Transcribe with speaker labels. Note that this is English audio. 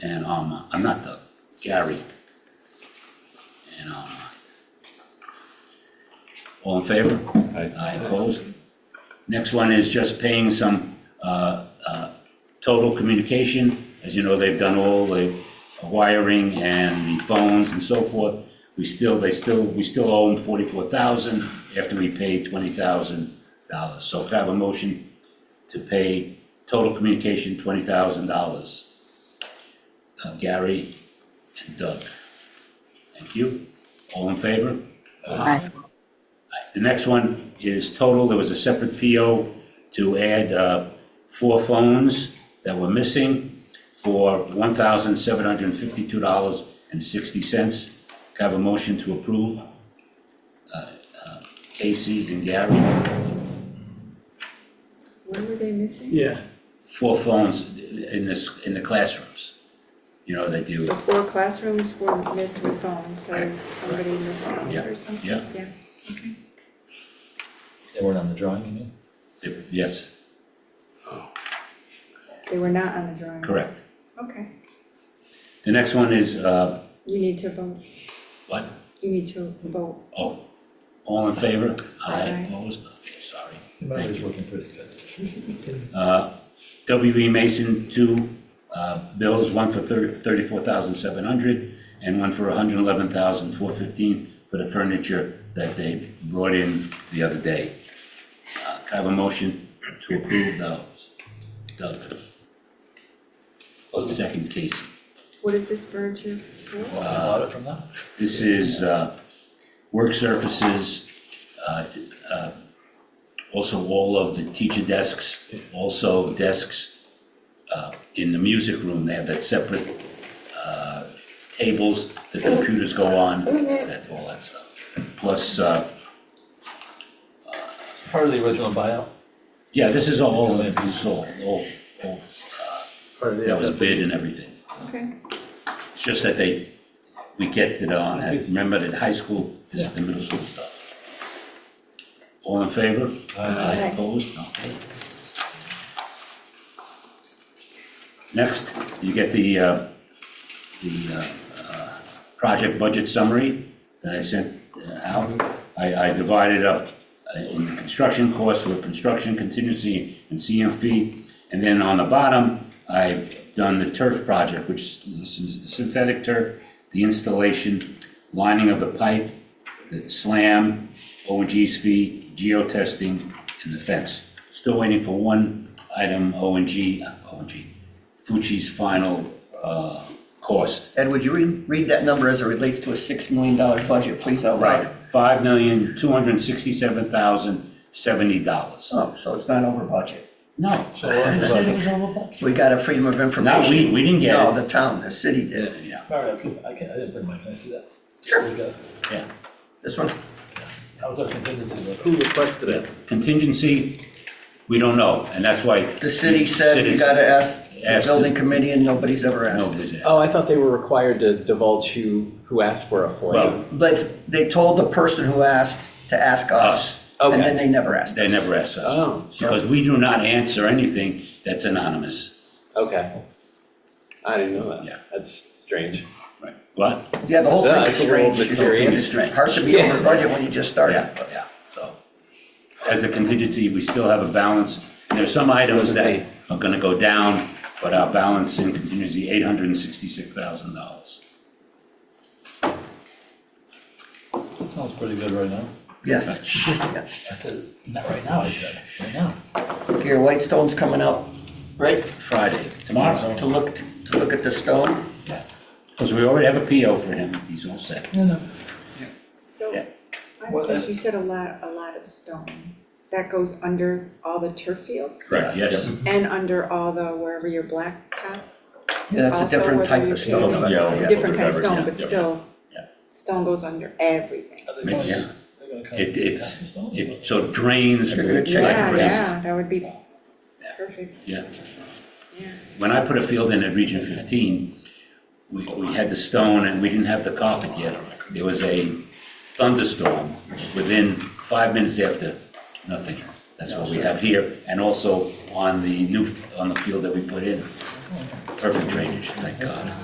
Speaker 1: And, um, I'm not the Gary. And, um, all in favor?
Speaker 2: Aye.
Speaker 1: I opposed. Next one is just paying some, uh, uh, total communication. As you know, they've done all the wiring and the phones and so forth. We still, they still, we still owe them forty-four thousand after we paid twenty thousand dollars. So could I have a motion to pay total communication twenty thousand dollars? Uh, Gary and Doug. Thank you. All in favor?
Speaker 3: Aye.
Speaker 1: The next one is total, there was a separate PO to add uh, four phones that were missing for $1,752.60. Can I Have a motion to approve. Uh, uh, Casey and Gary,
Speaker 3: When were they missing?
Speaker 4: Yeah,
Speaker 1: four phones in this, in the classrooms. You know, they do,
Speaker 3: The four classrooms were missed with phones, so
Speaker 1: Correct,
Speaker 3: somebody missed one
Speaker 1: Yeah,
Speaker 3: or something,
Speaker 1: yeah.
Speaker 3: yeah.
Speaker 2: They weren't on the drawing, you mean?
Speaker 1: they- yes,
Speaker 3: They were not on the drawing.
Speaker 1: correct.
Speaker 3: Okay,
Speaker 1: The next one is, uh,
Speaker 3: you need to vote,
Speaker 1: what?
Speaker 3: you need to vote.
Speaker 1: Oh, all in favor?
Speaker 3: Aye.
Speaker 1: Opposed? Okay, sorry.
Speaker 2: I
Speaker 1: Thank
Speaker 2: was
Speaker 1: you.
Speaker 2: working pretty good.
Speaker 1: W.E. E Mason, two uh, bills, one for thir- 34700 and one for 111415 for the furniture that they brought in the other day. Uh, Can I have a motion to approve those? Doug? Second, Casey.
Speaker 3: What is this furniture for?
Speaker 2: Can I borrow Uh, it from them?
Speaker 1: This is uh, work surfaces, uh, t- uh, also all of the teacher desks, also desks uh, in the music room, they have that separate uh, tables, the computers go on, that, all that stuff. Plus, uh,
Speaker 2: Part of the original buyout?
Speaker 1: yeah, this is all, this is all, all, all, uh,
Speaker 4: part of the.
Speaker 1: that was bid and everything.
Speaker 3: Okay,
Speaker 1: It's just that they, we get it on, I remember that high school, this is the middle school stuff. All in favor? Aye. Opposed? Okay. Next, you get the, uh, the, uh, uh, project budget summary that I sent uh, out. I, I divided up uh, in the construction costs with construction contingency and CM fee. And then on the bottom, I've done the turf project, which is the synthetic turf, the installation, lining of the pipe, the slam, OG's fee, geotesting, and the fence. Still waiting for one item, ONG, ONG, Fucci's final, uh, cost.
Speaker 5: Ed, would you read, read that number as it relates to a six million dollar budget, please, out loud?
Speaker 1: Five million, two hundred and sixty-seven thousand, seventy dollars.
Speaker 5: Oh, so it's not over budget.
Speaker 1: No.
Speaker 5: We got a freedom of information.
Speaker 1: Not we- we didn't get it.
Speaker 5: No, the town, the city did.
Speaker 1: Yeah,
Speaker 2: All right, okay, I can't, I didn't bring mine, can I see that?
Speaker 5: Sure.
Speaker 2: There we go.
Speaker 1: yeah.
Speaker 5: This one,
Speaker 2: That was our contingency, but
Speaker 4: Who requested it?
Speaker 1: Contingency, we don't know, and that's why.
Speaker 5: the city said you gotta ask the
Speaker 1: Asked it.
Speaker 5: building committee and nobody's ever asked.
Speaker 1: Nobody's
Speaker 6: Oh,
Speaker 1: asked.
Speaker 6: I thought they were required to divulge who, who asked for a FOIA.
Speaker 1: Well,
Speaker 5: But they told the person who asked to ask us,
Speaker 1: Us.
Speaker 5: and
Speaker 6: Okay.
Speaker 5: then they never asked
Speaker 1: they
Speaker 5: us.
Speaker 1: never asked
Speaker 6: Oh.
Speaker 1: us, because we do not answer anything that's anonymous.
Speaker 6: Okay. I didn't know that.
Speaker 1: Yeah.
Speaker 6: That's strange.
Speaker 1: Right. What?
Speaker 5: Yeah, the whole thing
Speaker 6: Yeah, it's
Speaker 5: is
Speaker 6: a little
Speaker 5: strange.
Speaker 6: mysterious.
Speaker 1: It's strange.
Speaker 5: Hard to be
Speaker 6: Yeah.
Speaker 5: over budget when you just started.
Speaker 1: Yeah, yeah, so. As a contingency, we still have a balance, and there's some items that are gonna go down, but our balance in contingency, eight hundred and sixty-six thousand dollars.
Speaker 2: that sounds pretty good right now.
Speaker 5: Yes. Yeah.
Speaker 2: I said, not right now, I said, right now.
Speaker 5: Here, Whitestone's coming up, right,
Speaker 1: Friday, tomorrow.
Speaker 5: to look, to look at the stone.
Speaker 1: Because we already have a PO for him, he's all set.
Speaker 2: No, no.
Speaker 3: so,
Speaker 1: Yeah.
Speaker 3: I
Speaker 2: Well,
Speaker 3: guess
Speaker 2: then-
Speaker 3: you said a lot, a lot of stone. That goes under all the turf fields?
Speaker 1: Correct, yes.
Speaker 3: And under all the, wherever your blacktop
Speaker 5: Yeah, that's
Speaker 3: Also,
Speaker 5: a different
Speaker 3: whether
Speaker 5: type
Speaker 3: you
Speaker 5: of stone.
Speaker 3: pay-
Speaker 5: but-
Speaker 1: Yeah, yeah.
Speaker 3: different kind of
Speaker 1: Whatever,
Speaker 3: stone,
Speaker 1: yeah,
Speaker 3: but
Speaker 1: yeah.
Speaker 3: still,
Speaker 1: Yeah.
Speaker 3: stone goes under everything.
Speaker 2: Are they
Speaker 1: Makes-
Speaker 2: going-
Speaker 1: yeah.
Speaker 2: they're gonna cut
Speaker 1: It,
Speaker 2: half the
Speaker 1: it's,
Speaker 2: stone?
Speaker 1: it, so it drains.
Speaker 5: They're gonna check
Speaker 1: like
Speaker 3: Yeah,
Speaker 1: crazy.
Speaker 3: yeah, that would be perfect,
Speaker 1: Yeah,
Speaker 3: yeah.
Speaker 1: when I put a field in at Region fifteen, we, we had the stone and we didn't have the carpet yet. There was a thunderstorm within five minutes after, nothing. That's what we have here, and also on the new, on the field that we put in, perfect drainage, thank God.